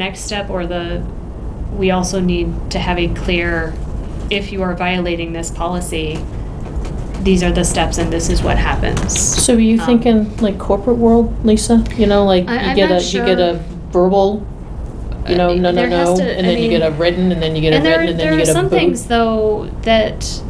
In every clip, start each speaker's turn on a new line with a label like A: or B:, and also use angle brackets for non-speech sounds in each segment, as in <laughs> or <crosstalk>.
A: next step or the, we also need to have a clear, if you are violating this policy, these are the steps and this is what happens.
B: So are you
A: Um,
B: thinking like corporate world, Lisa? You know, like
A: I-
B: you
A: I'm
B: get
A: not
B: a, you get
A: sure.
B: a verbal, you know,
A: Uh,
B: no, no,
A: there has
B: no,
A: to-
B: and
A: I
B: then you get a
A: mean-
B: written, and then you get a
A: and there,
B: written, and
A: there
B: then you
A: are
B: get a
A: some things
B: boot.
A: though that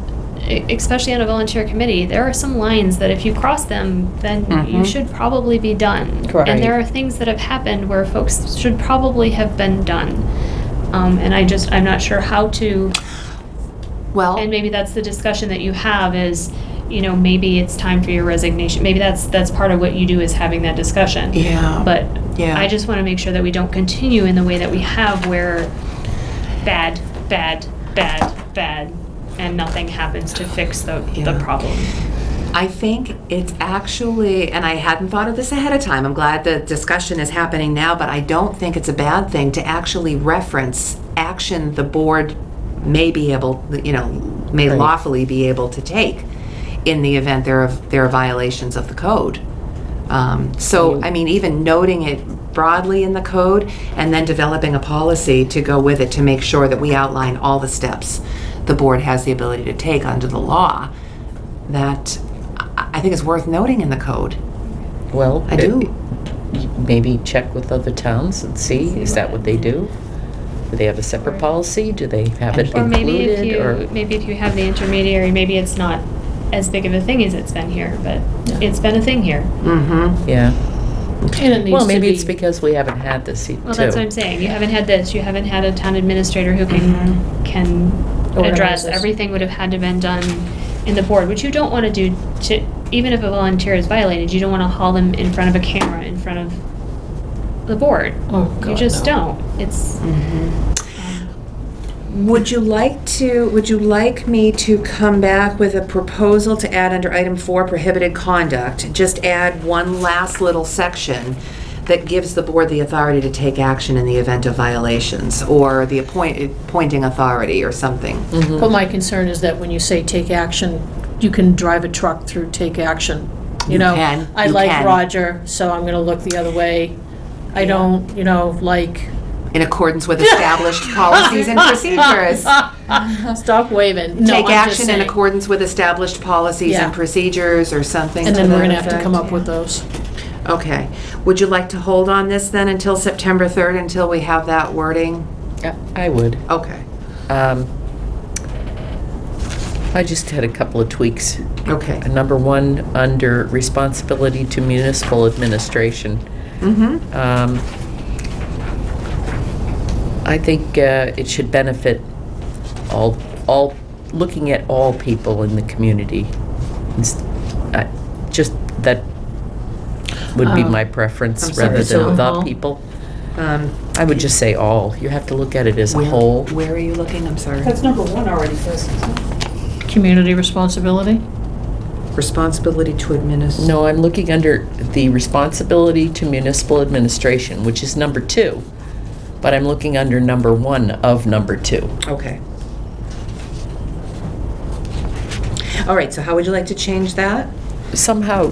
A: e- especially on a volunteer committee there are some lines that if you cross them then you
C: Mhm.
A: should probably be done
B: Correct.
A: and there are things that have happened where folks should probably have been done um, and i just i'm not sure how to
C: Well,
A: and maybe that's the discussion that you have is you know maybe it's time for your resignation maybe that's that's part of what you do is having that discussion
C: yeah,
A: but
C: Yeah.
A: I just want to make sure that we don't continue in the way that we have where bad, bad, bad, bad, and nothing happens to fix the, the
C: Yeah.
A: problem.
C: I think it's actually, and I hadn't thought of this ahead of time. I'm glad the discussion is happening now, but I don't think it's a bad thing to actually reference action the board may be able, you know, may
B: Right.
C: lawfully be able to take in the event there are, there are violations of the code. Um, so, I mean, even noting it broadly in the code and then developing a policy to go with it to make sure that we outline all the steps the board has the ability to take under the law that I I think is worth noting in the code.
D: Well,
C: I
D: it-
C: do.
D: Maybe check with other towns and see, is that what they do? Do they have a separate policy? Do they have it
A: Or maybe if
D: included?
A: you,
D: Or
A: maybe if you have the intermediary, maybe it's not as big of a thing as it's been here, but
B: Yeah.
A: it's been a thing here.
C: Mm-hmm.
D: Yeah.
B: And it needs
D: Well,
B: to
D: maybe it's
B: be-
D: because we haven't had this e- too.
A: Well, that's what I'm saying. You haven't had this, you haven't had a town administrator who can, can
B: Mm-hmm. Organize
A: address,
B: this.
A: everything would have had to been done in the board, which you don't want to do to, even if a volunteer is violated, you don't want to haul them in front of a camera, in front of the board.
B: Oh,
A: You
B: God,
A: just
B: no.
A: don't. It's,
C: Would you like to, would you like me to come back with a proposal to add under item four prohibited conduct? Just add one last little section that gives the board the authority to take action in the event of violations or the appoint, appointing authority or something.
B: But my concern is that when you say take action, you can drive a truck through take action. You
C: You
B: know,
C: can,
B: I
C: you
B: like
C: can.
B: Roger, so I'm gonna look the other way. I don't, you know, like,
C: In accordance
B: <laughs>
C: with established policies and procedures.
B: stop waving. No,
C: Take
B: I'm just
C: action in
B: saying.
C: accordance with established policies and
B: Yeah.
C: procedures or something
B: And
C: to
B: then
C: that
B: we're gonna have to
C: effect.
B: come up with those.
C: Okay. Would you like to hold on this then until September 3rd, until we have that wording?
D: Yeah, I would.
C: Okay,
D: Um, I just had a couple of tweaks.
C: okay.
D: Number one, under responsibility to municipal administration.
C: Mm-hmm,
D: Um, I think uh, it should benefit all, all, looking at all people in the community. It's- I- Just, that would be
B: Uh,
C: Oh.
D: my
C: I'm
D: preference
C: sorry,
D: rather
B: so
D: than the
B: all?
D: people. I would just say all. You have to look at it as a whole.
C: Um, Where are you looking? I'm sorry.
E: That's number one already, Chris.
B: Community responsibility?
C: Responsibility to administer.
D: No, I'm looking under the responsibility to municipal administration, which is number two. But I'm looking under number one of number two.
C: Okay. All right, so how would you like to change that?
D: somehow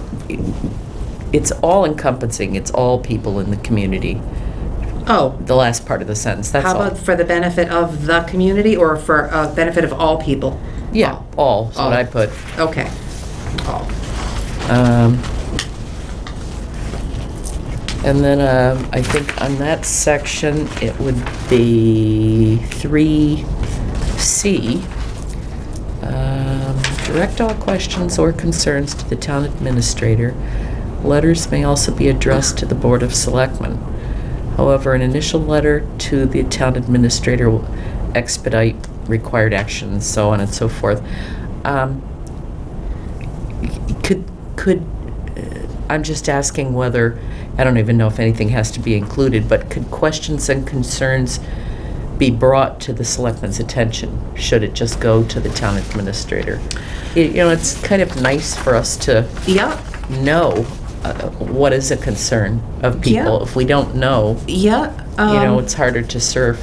D: it's all encompassing, it's all people in the community.
C: Oh,
D: The last part of the sentence, that's
C: how
D: all.
C: about for the benefit of the community or for uh, benefit of all people?
D: Yeah, all, is
C: Oh.
D: what I put.
C: Okay. All.
D: Um, And then um, I think on that section, it would be 3C. um, Direct all questions or concerns to the town administrator. Letters may also be addressed to the Board of Selectmen. However, an initial letter to the town administrator will expedite required actions, so on and so forth. Um, could, could, uh, I'm just asking whether, I don't even know if anything has to be included, but could questions and concerns be brought to the selectman's attention? Should it just go to the town administrator? You you know, it's kind of nice for us to
C: Yep.
D: know uh, what is a concern of people.
C: Yeah.
D: If we don't know,
C: Yeah.
D: you know,
C: um,
D: it's harder to serve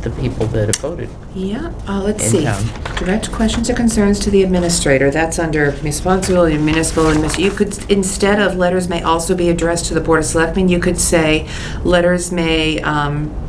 D: the people that have voted.
C: Yeah, uh, let's
D: In
C: see.
D: town.
C: Direct questions or concerns to the administrator, that's under responsibility of municipal admin. You could, instead of letters may also be addressed to the Board of Selectmen, you could say, letters may um,